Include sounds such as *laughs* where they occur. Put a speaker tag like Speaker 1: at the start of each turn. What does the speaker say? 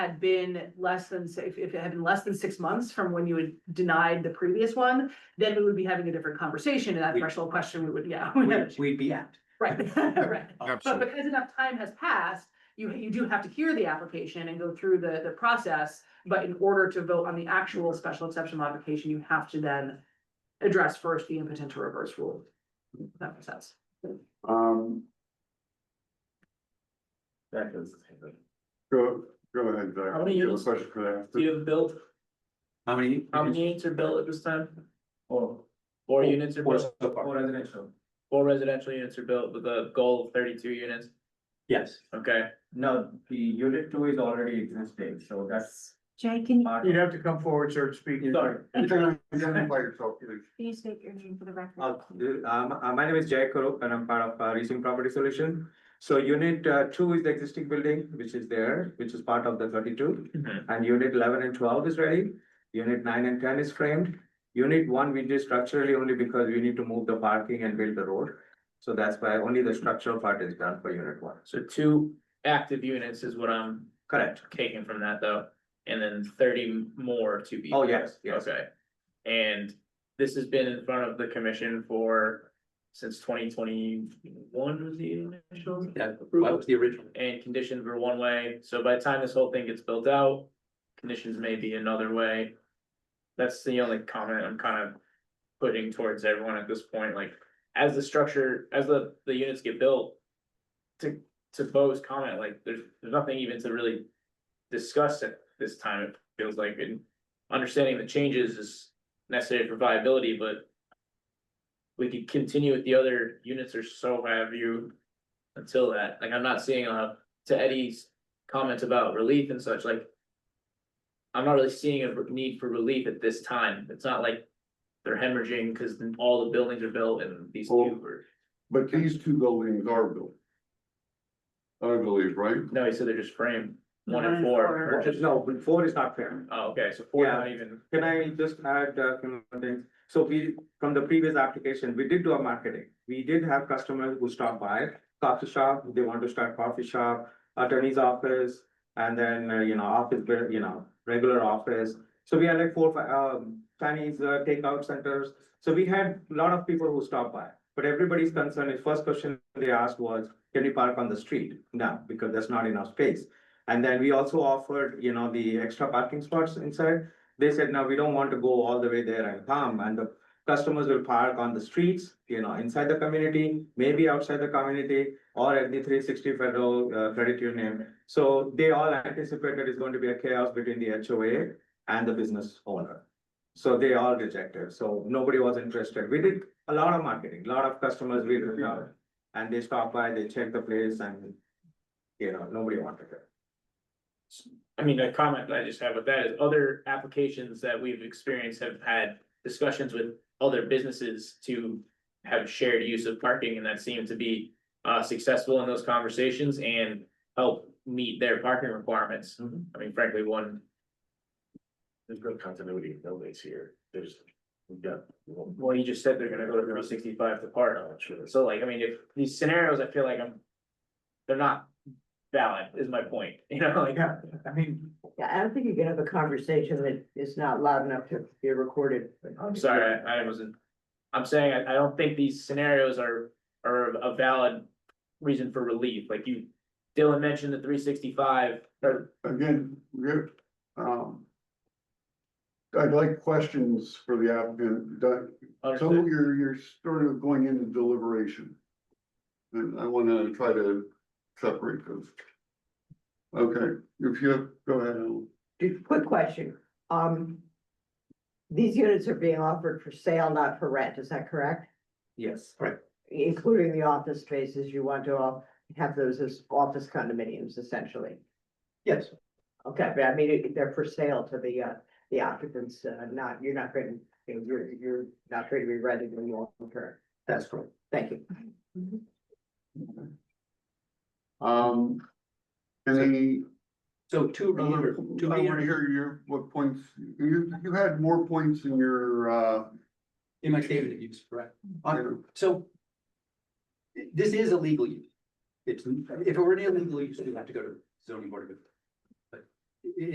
Speaker 1: had been less than, si- if, if it had been less than six months from when you had denied the previous one, then we would be having a different conversation and that
Speaker 2: We-
Speaker 1: threshold question, we would, yeah. *laughs*
Speaker 2: We'd, we'd be out.
Speaker 1: Right, right. But
Speaker 3: Absolutely.
Speaker 1: because enough time has passed, you, you do have to hear the application and go through the, the process. But in order to vote on the actual special exception modification, you have to then address first the impotent to reverse rule. If That makes sense.
Speaker 4: Um,
Speaker 5: That is.
Speaker 4: go, go ahead, Zach.
Speaker 5: How many
Speaker 4: You have a
Speaker 5: units?
Speaker 4: Question for
Speaker 5: Do
Speaker 4: that.
Speaker 5: you have built,
Speaker 2: How many?
Speaker 5: how many units are built at this time? Four. Four units are
Speaker 2: Four
Speaker 5: built,
Speaker 2: so far.
Speaker 5: Four four residential units are built with a goal of thirty-two units,
Speaker 2: Yes.
Speaker 5: okay?
Speaker 6: No, the unit two is already existing, so that's
Speaker 7: Jay, can you
Speaker 6: part
Speaker 8: You'd
Speaker 6: of
Speaker 8: have to come forward, sir, to speak.
Speaker 5: Sorry.
Speaker 4: You can identify yourself, please.
Speaker 7: please state your name for the record?
Speaker 6: of the- um, uh, my name is Jay Karup and I'm part of uh, Reaching Property Solution. So unit uh, two is the existing building, which is there, which is part of the thirty-two.
Speaker 5: Mhm.
Speaker 6: And unit eleven and twelve is ready, unit nine and ten is framed. Unit one, we did structurally only because we need to move the parking and build the road. So that's why only the structural part is done for unit one.
Speaker 5: So two active units is what I'm
Speaker 6: Correct.
Speaker 5: taking from that though, and then thirty more to be.
Speaker 6: Oh, yes, yes.
Speaker 5: Okay, and this has been in front of the commission for, since twenty twenty-one was the initial?
Speaker 2: Yeah, what
Speaker 5: approval?
Speaker 2: was the original?
Speaker 5: and conditions were one way, so by the time this whole thing gets built out, conditions may be another way. That's the only comment I'm kind of putting towards everyone at this point, like, as the structure, as the, the units get built. To, to Bo's comment, like, there's, there's nothing even to really discuss at this time, it feels like, and understanding the changes is necessary for viability, but. We could continue with the other units or so have you until that, like, I'm not seeing a, to Eddie's comments about relief and such, like. I'm not really seeing a need for relief at this time, it's not like they're hemorrhaging, cause then all the buildings are built and these
Speaker 4: Well-
Speaker 5: two are.
Speaker 4: But these two buildings are built. I believe, right?
Speaker 5: No, he said they're just framed, one
Speaker 7: One
Speaker 5: and
Speaker 7: and
Speaker 5: four.
Speaker 7: four.
Speaker 5: are just-
Speaker 6: No, four is not framed.
Speaker 5: Oh, okay, so four
Speaker 6: Yeah.
Speaker 5: not even,
Speaker 6: Can I just add a few more things? So we, from the previous application, we did do our marketing. We did have customers who stopped by coffee shop, they want to start coffee shop, attorney's office, and then, uh, you know, office, where, you know, regular office. So we had like four, fi- um, Chinese uh, takeout centers. So we had a lot of people who stopped by. But everybody's concern is first question they asked was, can we park on the street? No, because there's not enough space. And then we also offered, you know, the extra parking spots inside they said, no, we don't want to go all the way there and come, and the customers will park on the streets, you know, inside the community, maybe outside the community, or at the three sixty federal uh, credit union. So they all anticipated it's going to be a chaos between the HOA and the business owner. So they all rejected, so nobody was interested. We did a lot of marketing, a lot of customers we reached out. And they stopped by, they checked the place and, you know, nobody wanted it.
Speaker 5: I mean, a comment that I just have with that is other applications that we've experienced have had discussions with other businesses to have shared use of parking and that seemed to be uh successful in those conversations and help meet their parking requirements.
Speaker 6: Mhm.
Speaker 5: I mean, frankly, one,
Speaker 3: There's real continuity in buildings here, there's, we've got. Oh,
Speaker 5: well, you just said they're gonna go to three sixty-five to park. So like, I mean, if these scenarios, I feel like I'm, they're not valid is my point, you know, like.
Speaker 8: Yeah, I mean,
Speaker 9: Yeah, I don't think you can have a conversation that is not loud enough to be recorded.
Speaker 5: I'm sorry, I, I wasn't, I'm saying, I, I don't think these scenarios are, are a valid reason for relief, like you. Dylan mentioned the three sixty-five, or,
Speaker 4: Again, we're, um. I'd like questions for the applicant, Doug, So
Speaker 5: understood.
Speaker 4: you're, you're sort of going into deliberation. And I wanna try to separate those. Okay, if you have, go ahead, Alan.
Speaker 9: Just Quick question, um. These units are being offered for sale, not for rent, is that correct?
Speaker 6: Yes.
Speaker 9: Including the office spaces, you want to all have those as office condominiums essentially.
Speaker 6: Yes.
Speaker 9: Okay, but I mean, it- they're for sale to the, uh, the occupants, uh, not, you're not going to, you're, you're not going to be renting them long term.
Speaker 6: That's correct.
Speaker 9: Thank you.
Speaker 4: Um. Any,
Speaker 2: So two
Speaker 4: I wanna
Speaker 2: delivered, two
Speaker 4: Uh-huh.
Speaker 2: units
Speaker 4: hear your, what points, you, you had more points in your, uh.
Speaker 2: in my statement of use, correct?
Speaker 4: your-
Speaker 2: So. This is a legal use. It's, if it were an illegal use, we'd have to go to zoning board of appeals. But i-